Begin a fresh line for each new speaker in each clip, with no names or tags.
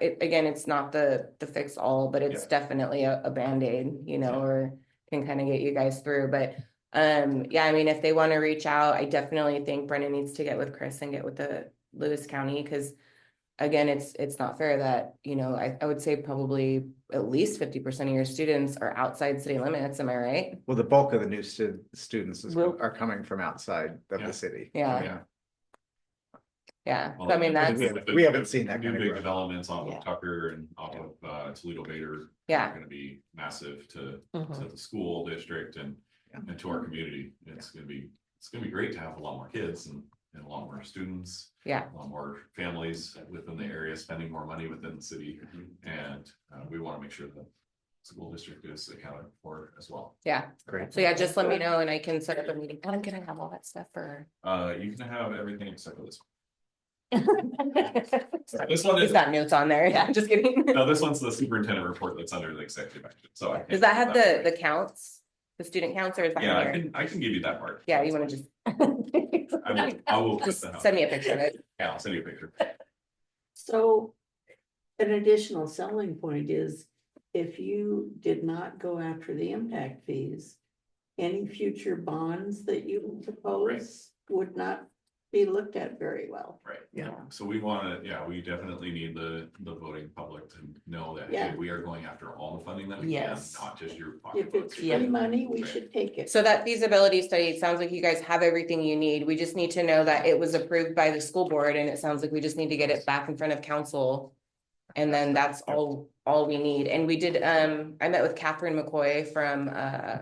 it, again, it's not the, the fix all, but it's definitely a, a Band-Aid, you know, or can kind of get you guys through, but, um, yeah, I mean, if they want to reach out, I definitely think Brennan needs to get with Chris and get with the Lewis County, because again, it's, it's not fair that, you know, I, I would say probably at least fifty percent of your students are outside city limits, am I right?
Well, the bulk of the new stu- students is,
Will-
are coming from outside of
Yeah.
the city.
Yeah.
Yeah.
Yeah, so I mean,
Well,
that's,
we
the-
we haven't seen that
New
kind of
big
growth.
developments off
Yeah.
of Tucker and off of uh Toledo Bader.
yeah,
are Gonna be massive to to the school district and
Yeah.
and to our community. It's gonna be, it's gonna be great to have a lot more kids and and a lot more students.
Yeah.
A lot more families within the area spending more money within the city and uh we wanna make sure that school district is accounted for as well.
yeah.
Great.
So yeah, just let me know and I can set up a meeting. Adam, can I have all that stuff for?
Uh, you can have everything except for this. one. This one
He's
is,
got notes on there. Yeah, just kidding.
no, this one's the superintendent report that's under the executive action, so. I can't
Does that have
give
the, the counts, the student counts or is that in
Yeah, I
here?
can, I can give you that part.
Yeah, you wanna just.
I will, I will put
Just
that out.
send me a picture of it.
Yeah, I'll send you a picture.
So an additional selling point is if you did not go after the impact fees, any future bonds that you propose would not be looked at very well.
Right.
Yeah.
So we wanna, yeah, we definitely need the, the voting public to know that, hey,
Yeah.
we are going after all the funding that we can,
Yes.
not just your
If
pocketbook.
it's free money, we should take it.
So that feasibility study, it sounds like you guys have everything you need. We just need to know that it was approved by the school board and it sounds like we just need to get it back in front of council. And then that's all, all we need. And we did, um, I met with Catherine McCoy from, uh,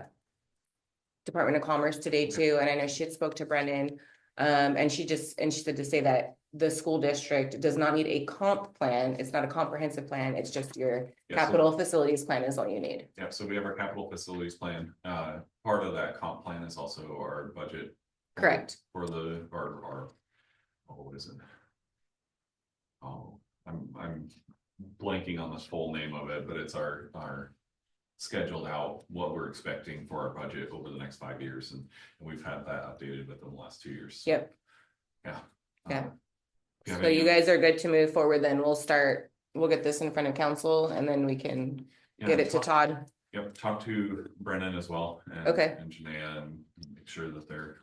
Department of Commerce today too, and I know she had spoke to Brennan. Um, and she just, and she said to say that the school district does not need a comp plan. It's not a comprehensive plan. It's just your
Yeah, so-
capital facilities plan is all you need.
Yeah, so we have our capital facilities plan. Uh, part of that comp plan is also our budget.
Correct.
For the, our, our, oh, what is it? Oh, I'm, I'm blanking on the full name of it, but it's our, our scheduled out what we're expecting for our budget over the next five years, and, and we've had that updated within the last two years. so,
Yep.
Yeah.
Yeah.
Uh, yeah,
So
maybe-
you guys are good to move forward, then we'll start, we'll get this in front of council and then we can
yeah,
get it to
talk-
Todd.
Yep, talk to Brennan as well. and-
Okay.
And Janae and make sure that they're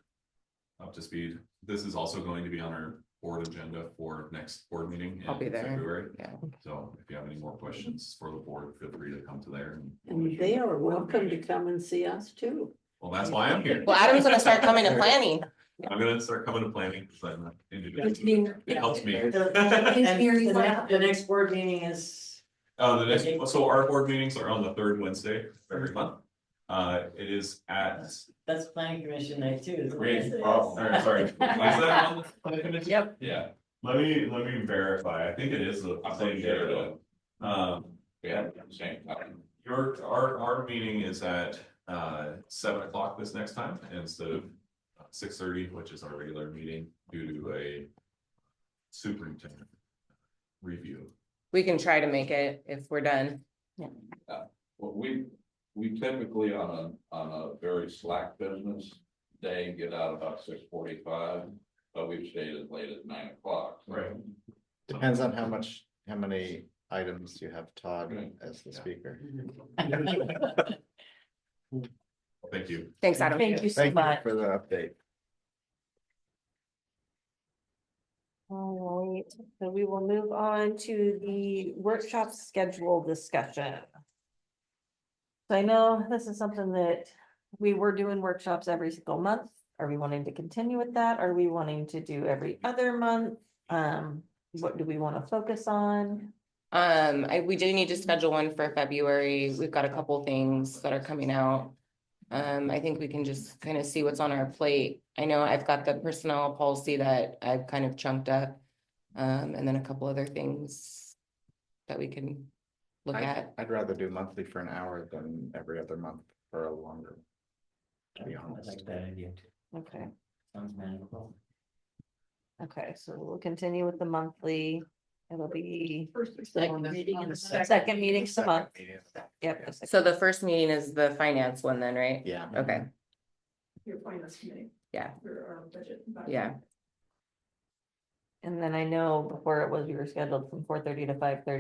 up to speed. This is also going to be on our board agenda for next board meeting. in
I'll be there.
February.
Yeah.
So if you have any more questions for the board, feel free to come to there. and-
And they are welcome to come and see us too.
Well, that's why I'm here.
Well, Adam's gonna start coming to planning.
I'm gonna start coming to planning. 'cause I'm an individual.
It's being-
It helps me.
The-
Uh,
And the next, the next board meeting is,
the next, so our board meetings are on the third Wednesday of every month. Uh, it is at.
that's planning commission night too. isn't it?
Wait, oh, sorry, sorry. Is that on the- on the commission?
Yep,
Yeah, let me, let me verify, I think it is the same day though. Um, yeah, same. time. Your, our, our meeting is at, uh, seven o'clock this next time instead of six thirty, which is our regular meeting due to a superintendent review.
We can try to make it if we're done.
Well, we, we typically on a, on a very slack business day, get out about six forty-five, but we've stayed as late as nine o'clock.
Right.
Depends on how much, how many items you have Todd
Right.
as the
Yeah.
speaker.
Thank you.
Thanks, Adam.
Thank you so
Thank you
much.
for the update.
All right, so we will move on to the workshop schedule discussion. So I know this is something that we were doing workshops every single month. Are we wanting to continue with that? Are we wanting to do every other month? Um, what do we want to focus on?
Um, I, we do need to schedule one for February. We've got a couple things that are coming out. Um, I think we can just kind of see what's on our plate. I know I've got the personnel policy that I've kind of chunked up. Um, and then a couple other things that we can look
I-
at.
I'd rather do monthly for an hour than every other month for a longer. To be
I
honest.
like that idea too.
Okay.
Sounds manageable.
Okay, so we'll continue with the monthly. It'll be
Second meeting in the second.
um, second meeting of the
Second
month.
meeting.
Yep. the second-
So the first meeting is the finance one then, right?
Yeah,
Okay,
your finance committee.
Yeah.
For our budget.
yeah.
And then I know before it was, we were scheduled from four thirty to five thirty.